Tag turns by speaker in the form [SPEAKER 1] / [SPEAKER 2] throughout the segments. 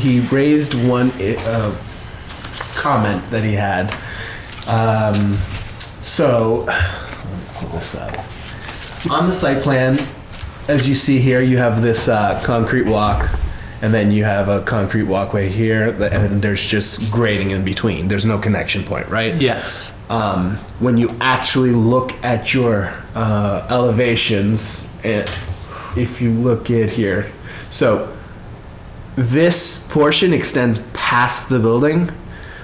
[SPEAKER 1] he raised one i- uh, comment that he had. Um, so, pull this up. On the site plan, as you see here, you have this uh, concrete walk, and then you have a concrete walkway here, th- and there's just grading in between. There's no connection point, right?
[SPEAKER 2] Yes.
[SPEAKER 1] um, when you actually look at your uh, elevations, and if you look at here, so this portion extends past the building,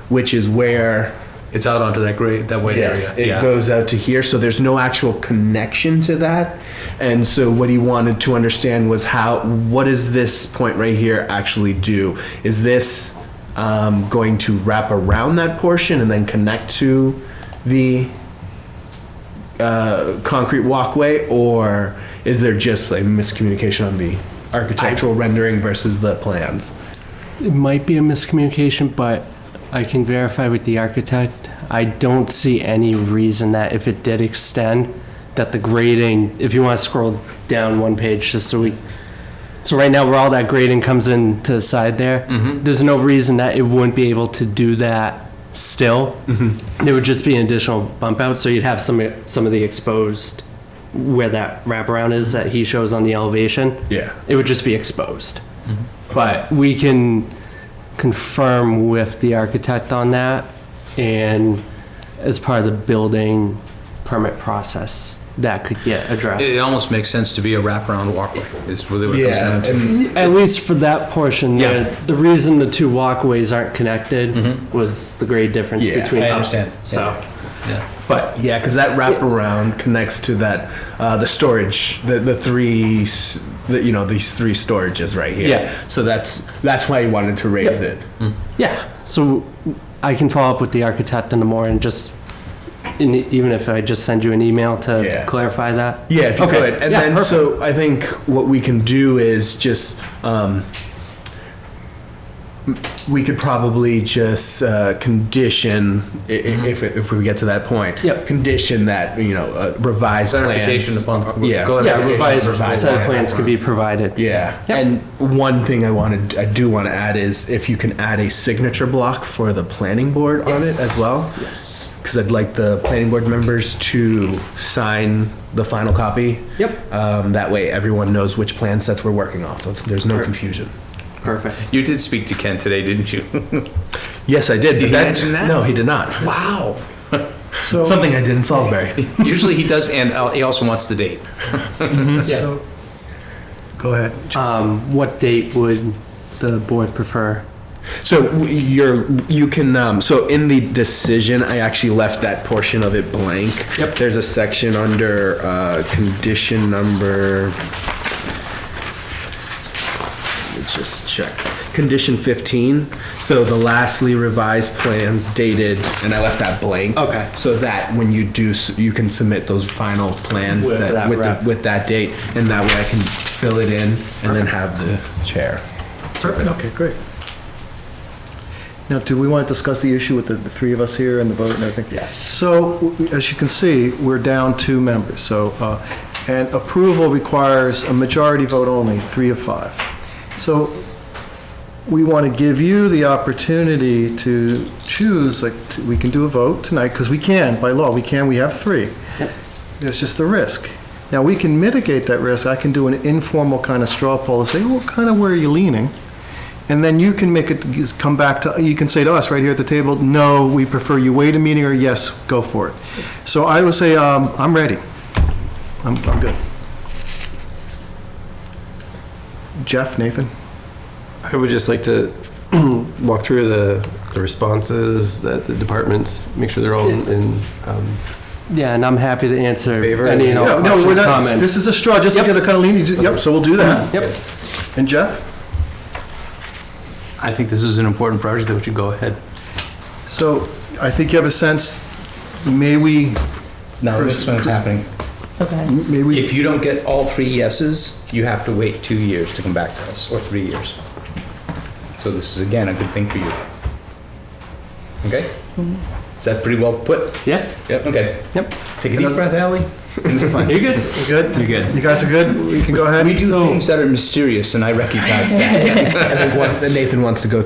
[SPEAKER 1] which is where
[SPEAKER 2] It's out onto that great that white
[SPEAKER 1] yes, it
[SPEAKER 2] area. yeah.
[SPEAKER 1] goes out to here. So there's no actual connection to that, and so what he wanted to understand was how what does this point right here actually do? Is this um, going to wrap around that portion and then connect to the uh, concrete walkway, or is there just a miscommunication on the architectural rendering versus the plans?
[SPEAKER 3] It might be a miscommunication, but I can verify with the architect. I don't see any reason that if it did extend, that the grading, if you want to scroll down one page, just so we, so right now where all that grading comes in to the side there,
[SPEAKER 2] Mm-hmm.
[SPEAKER 3] there's no reason that it wouldn't be able to do that still.
[SPEAKER 2] Mm-hmm.
[SPEAKER 3] There would just be an additional bump out, so you'd have some, some of the exposed, where that wraparound is that he shows on the elevation
[SPEAKER 1] Yeah.
[SPEAKER 3] it would just be exposed. But we can confirm with the architect on that and as part of the building permit process, that could get
[SPEAKER 2] It, it
[SPEAKER 3] addressed.
[SPEAKER 2] almost makes sense to be a wraparound walkway. Is really what it
[SPEAKER 1] Yeah,
[SPEAKER 2] comes down to.
[SPEAKER 1] and
[SPEAKER 3] At least for that portion, there,
[SPEAKER 2] Yeah.
[SPEAKER 3] the reason the two walkways aren't connected was the grade difference
[SPEAKER 1] Yeah,
[SPEAKER 3] between
[SPEAKER 2] I
[SPEAKER 3] them.
[SPEAKER 2] understand.
[SPEAKER 3] So,
[SPEAKER 2] Yeah.
[SPEAKER 3] but
[SPEAKER 1] Yeah, because that wraparound connects to that uh, the storage, the the three, s- the, you know, these three storages right here.
[SPEAKER 3] Yeah.
[SPEAKER 1] So that's that's why you wanted to raise it.
[SPEAKER 3] yeah, so I can follow up with the architect in the morning, just, and even if I just send you an email
[SPEAKER 1] Yeah.
[SPEAKER 3] to clarify that.
[SPEAKER 1] Yeah, if you
[SPEAKER 3] Okay.
[SPEAKER 1] could, and
[SPEAKER 3] Yeah,
[SPEAKER 1] then
[SPEAKER 3] perfect.
[SPEAKER 1] so I think what we can do is just um, m- we could probably just uh, condition i- i- if it, if we get to that point.
[SPEAKER 3] Mm-hmm. Yep.
[SPEAKER 1] Condition that you know uh, revised
[SPEAKER 2] Clarification
[SPEAKER 1] plans.
[SPEAKER 2] upon-
[SPEAKER 1] yeah.
[SPEAKER 2] go ahead.
[SPEAKER 3] Yeah,
[SPEAKER 2] Yeah,
[SPEAKER 3] revised
[SPEAKER 1] revised
[SPEAKER 3] set
[SPEAKER 1] plans.
[SPEAKER 3] of plans could be provided.
[SPEAKER 1] Yeah.
[SPEAKER 3] Yep.
[SPEAKER 1] And one thing I wanted, I do want to add is if you can add a signature block for the planning board on it
[SPEAKER 3] Yes.
[SPEAKER 1] as well. Yes. Because I'd like the planning board members to sign the final copy.
[SPEAKER 3] Yep.
[SPEAKER 1] Um, that way everyone knows which plan sets we're working off of. There's no confusion.
[SPEAKER 3] Perfect.
[SPEAKER 2] You did speak to Ken today, didn't you?
[SPEAKER 1] Yes, I did. Did
[SPEAKER 2] he mention that?
[SPEAKER 1] No, he did not.
[SPEAKER 2] wow.
[SPEAKER 1] Something I did in Salisbury.
[SPEAKER 2] Usually he does, and uh, he also wants the date.
[SPEAKER 1] So, go ahead.
[SPEAKER 3] Um, what date would the board prefer?
[SPEAKER 1] So w- you're, you can, um, so in the decision, I actually left that portion of it blank.
[SPEAKER 3] Yep.
[SPEAKER 1] There's a section under, uh, condition number. Let's just check. Condition fifteen, so the lastly revised plans dated, and I left that blank.
[SPEAKER 3] Okay.
[SPEAKER 1] So that when you do, s- you can submit those final plans
[SPEAKER 3] With
[SPEAKER 1] that,
[SPEAKER 3] that
[SPEAKER 1] with, the-
[SPEAKER 3] ref.
[SPEAKER 1] with that date, and that way I can fill it in and then have the chair.
[SPEAKER 4] Perfect, okay, great. Now, do we want to discuss the issue with the the three of us here and the vote and everything?
[SPEAKER 1] Yes.
[SPEAKER 4] So, w- as you can see, we're down two members, so, uh, and approval requires a majority vote only, three of five. So, we want to give you the opportunity to choose, like, t- we can do a vote tonight, because we can, by law, we can, we have three. There's just the risk. Now, we can mitigate that risk, I can do an informal kind of straw poll and say, well, kind of where are you leaning? And then you can make it, come back to, you can say to us right here at the table, no, we prefer you wait a meeting, or yes, go for it. So I would say, um, I'm ready. I'm, I'm good. Jeff, Nathan?
[SPEAKER 5] I would just like to walk through the, the responses that the departments, make sure they're all in- in, um,
[SPEAKER 3] Yeah, and I'm happy to answer
[SPEAKER 5] Favor?
[SPEAKER 3] any and all
[SPEAKER 4] No, no, we're
[SPEAKER 3] questions,
[SPEAKER 4] not,
[SPEAKER 3] comments.
[SPEAKER 4] this is a straw, just to
[SPEAKER 3] Yep.
[SPEAKER 4] get a kind of lean, you ju- yep, so we'll do that.
[SPEAKER 3] Yep.
[SPEAKER 4] And Jeff?
[SPEAKER 2] I think this is an important project that we should go ahead.
[SPEAKER 4] So I think you have a sense, may we,
[SPEAKER 2] Now, this is when it's happening.
[SPEAKER 4] may we,
[SPEAKER 2] If you don't get all three yeses, you have to wait two years to come back to us, or three years. So this is, again, a good thing for you. Okay? Is that pretty well put?
[SPEAKER 3] Yeah,
[SPEAKER 2] Yep, okay.
[SPEAKER 3] yep.
[SPEAKER 2] Take a deep breath, Ally. It's fine.
[SPEAKER 3] You're good.
[SPEAKER 4] You good?
[SPEAKER 2] You're good.
[SPEAKER 4] You guys are good? We can go ahead?
[SPEAKER 2] We do things that are mysterious, and I recognize that.
[SPEAKER 1] I think what Nathan wants to go